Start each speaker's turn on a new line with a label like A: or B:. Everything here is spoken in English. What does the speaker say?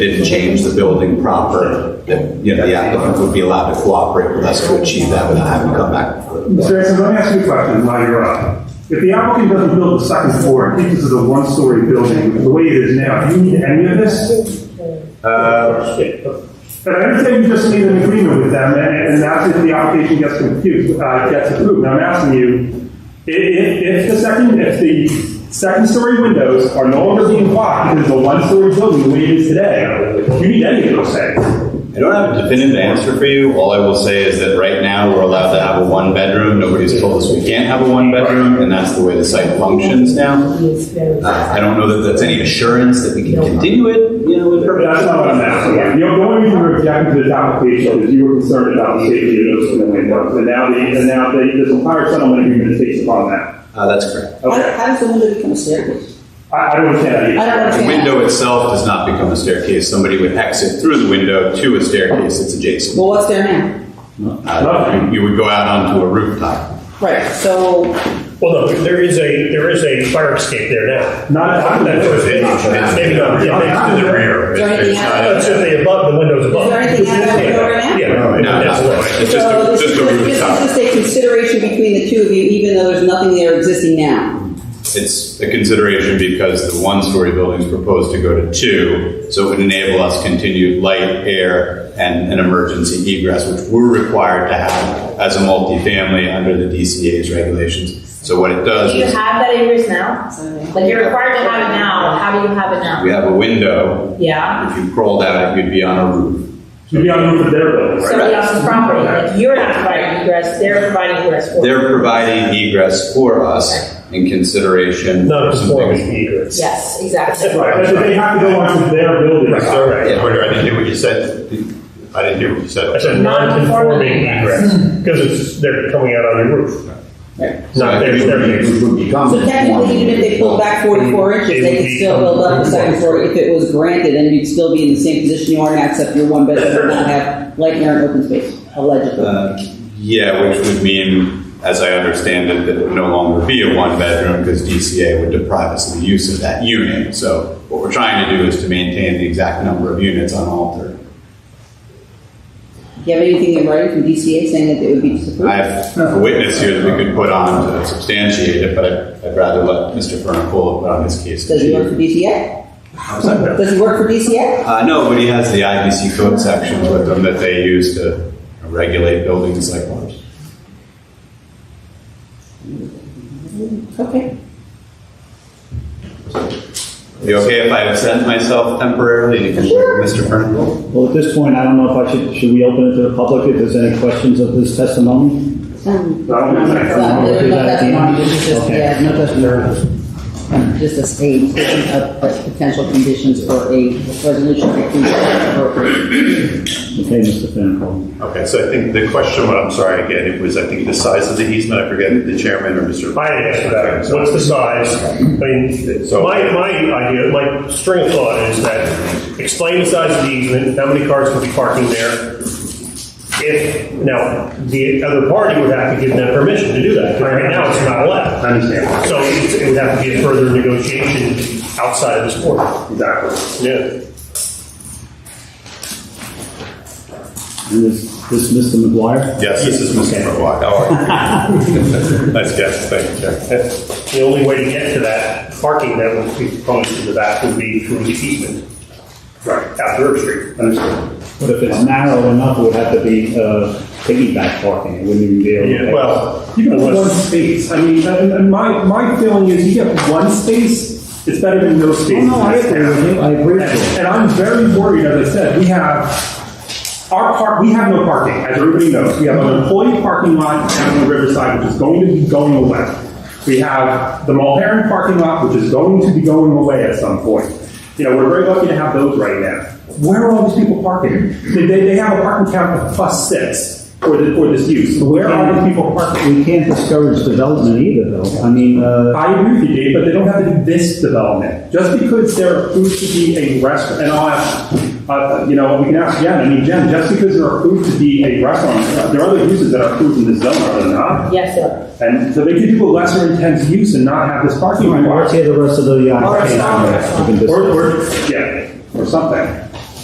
A: didn't change the building proper, that, you know, the applicant would be allowed to cooperate with us to achieve that without having to come back. before the
B: Mr. Exum, let me ask you a question while you're up. If the applicant doesn't build the second floor, I think this is a one-story building, the way it is now, do you need any of this? But I understand you just made an agreement with them, and, and that's if the application gets confused, uh, gets approved. Now, I'm asking you, i- if, if the second, if the second-story windows are no longer being blocked because it's a one-story building the way it is today, do you need any of those things?
C: I don't have a definitive answer for you. All I will say is that right now, we're allowed to have a one-bedroom. Nobody's told us we can't have a one-bedroom, and that's the way the site functions now. Uh, I don't know that that's any assurance that we can continue it, you know, with
B: But That's not what I'm asking. The only reason we're objecting to this application is you were concerned about the safety of those windows, and now the, and now the, this entire settlement agreement is based upon that.
C: Uh, that's correct.
D: How
B: Okay,
D: how does the window become a staircase?
B: I, I don't understand that. either.
D: I don't
C: The
D: understand.
C: window itself does not become a staircase. Somebody would exit through the window to a staircase that's adjacent.
D: Well, what's there now?
C: Uh, you- You would go out onto a rooftop.
D: Right, so,
E: Well, no, there is a, there is a fire escape there now.
B: Not at the-
E: That's what it is. It's maybe not, yeah, maybe to the rear.
D: is there anything out
E: It's
D: of,
E: in the above, the windows above.
D: Is there anything out of the door now?
E: Yeah,
C: No,
E: that's
C: not
E: what-
C: quite. It's just
D: so
C: a,
D: this is
C: just a
D: this
C: rooftop.
D: is just a consideration between the two of you, even though there's nothing there existing now.
C: It's a consideration because the one-story building is proposed to go to two, so it would enable us continued light, air, and an emergency egress, which we're required to have as a multifamily under the DCA's regulations. So what it does
F: Do you
C: is,
F: have that acres now? Like, you're required to have it now, how do you have it now?
C: we have a window,
F: Yeah?
C: if you crawled out, you'd be on a roof.
B: You'd be on the roof of their building, right?
F: Somebody else's property, like, you're not providing egress, they're providing egress for. you.
C: They're providing egress for us in consideration.
E: Not a
C: for some
E: conforming
C: things-
E: egress.
F: Yes, exactly.
B: Right, but they have to go onto their building.
E: Right, all right.
G: I didn't hear what you said. I didn't hear what you
E: That's
G: said.
E: a non-conforming egress, because it's, they're coming out on the roof. Not their staircase.
D: So technically, even if they pulled back
C: Mm-hmm.
D: forty-four inches, they could still build up the second floor if it was granted, and you'd still be in the same position you are now, except your one bedroom would not have light, air, and open space, allegedly.
C: Uh, Yeah, which would mean, as I understand it, that it would no longer be a one-bedroom because DCA would deprive us of the use of that unit. So what we're trying to do is to maintain the exact number of units unaltered.
D: Do you have anything in writing from DCA saying that it would be disapproved?
C: I have a witness here that we could put on to substantiate it, but I'd- I'd rather let Mr. Fernacola put on his case.
D: Does he work for DCA? Does he work for DCA?
C: Uh, no, but he has the IBC code sections with him that they use to regulate buildings like ours.
D: Okay.
C: You okay if I absent myself temporarily and you can check with Mr. Fernacola?
H: Well, at this point, I don't know if I should, should we open it to the public if there's any questions of this testimony?
D: Um,
B: I don't think that's-
D: No, there's no testimony, this is just,
H: Okay.
D: yeah, no testimony. Just a statement of uh, potential conditions for a resolution that can be appropriate.
H: Okay, Mr. Finkel.
G: Okay, so I think the question, what I'm sorry again, it was, I think, the size of the easement, I forget, if the chairman or Mr.
E: I didn't ask for that. What's the size? I mean,
G: So-
E: my, my idea, my string of thought is that explain the size of the easement, how many cars would be parking there. If, now, the other party would have to give them permission to do that, 'cause right now it's not allowed.
B: I understand.
E: So it would have to be a further negotiation outside of this board.
B: Exactly.
E: Yeah.
H: And this, this Mr. McGuire?
G: Yes, this is Mr. McGuire. How are you? Nice guess, thank you, Jack.
E: The only way to get to that parking that would be proposed to the back would be through the easement. Right. After Herb Street. Understood.
H: But if it's narrow enough, it would have to be, uh, piggyback parking, it wouldn't even be able to.
E: Well,
B: You get one
E: unless-
B: space, I mean, and, and my, my feeling is you get one space, it's better than no space.
H: no, I agree with you. I agree with you.
B: And- And I'm very worried, as I said, we have Our park, we have no parking, as everybody knows. We have an employee parking lot down in Riverside, which is going to be going away. We have the Mulherron parking lot, which is going to be going away at some point. You know, we're very lucky to have those right now. Where are all these people parking? They, they, they have a parking count of plus six for, the, for this use. Where are these people parking?
H: We can't discourage development either, though. I mean, uh,
B: I agree with you, Dave, but they don't have to do this development. Just because they're approved to be a restaurant, and I'll ask, uh, you know, we can ask Jen, I mean, Jen, just because they're approved to be a restaurant, uh, there are other uses that are approved in this zone, are there not?
F: Yes, sir.
B: And so they could do a lesser intense use and not have this parking
H: let's
B: requirement.
H: hear the rest of the
B: Or,
H: application. We can
B: or,
H: discuss.
B: or- yeah, or something.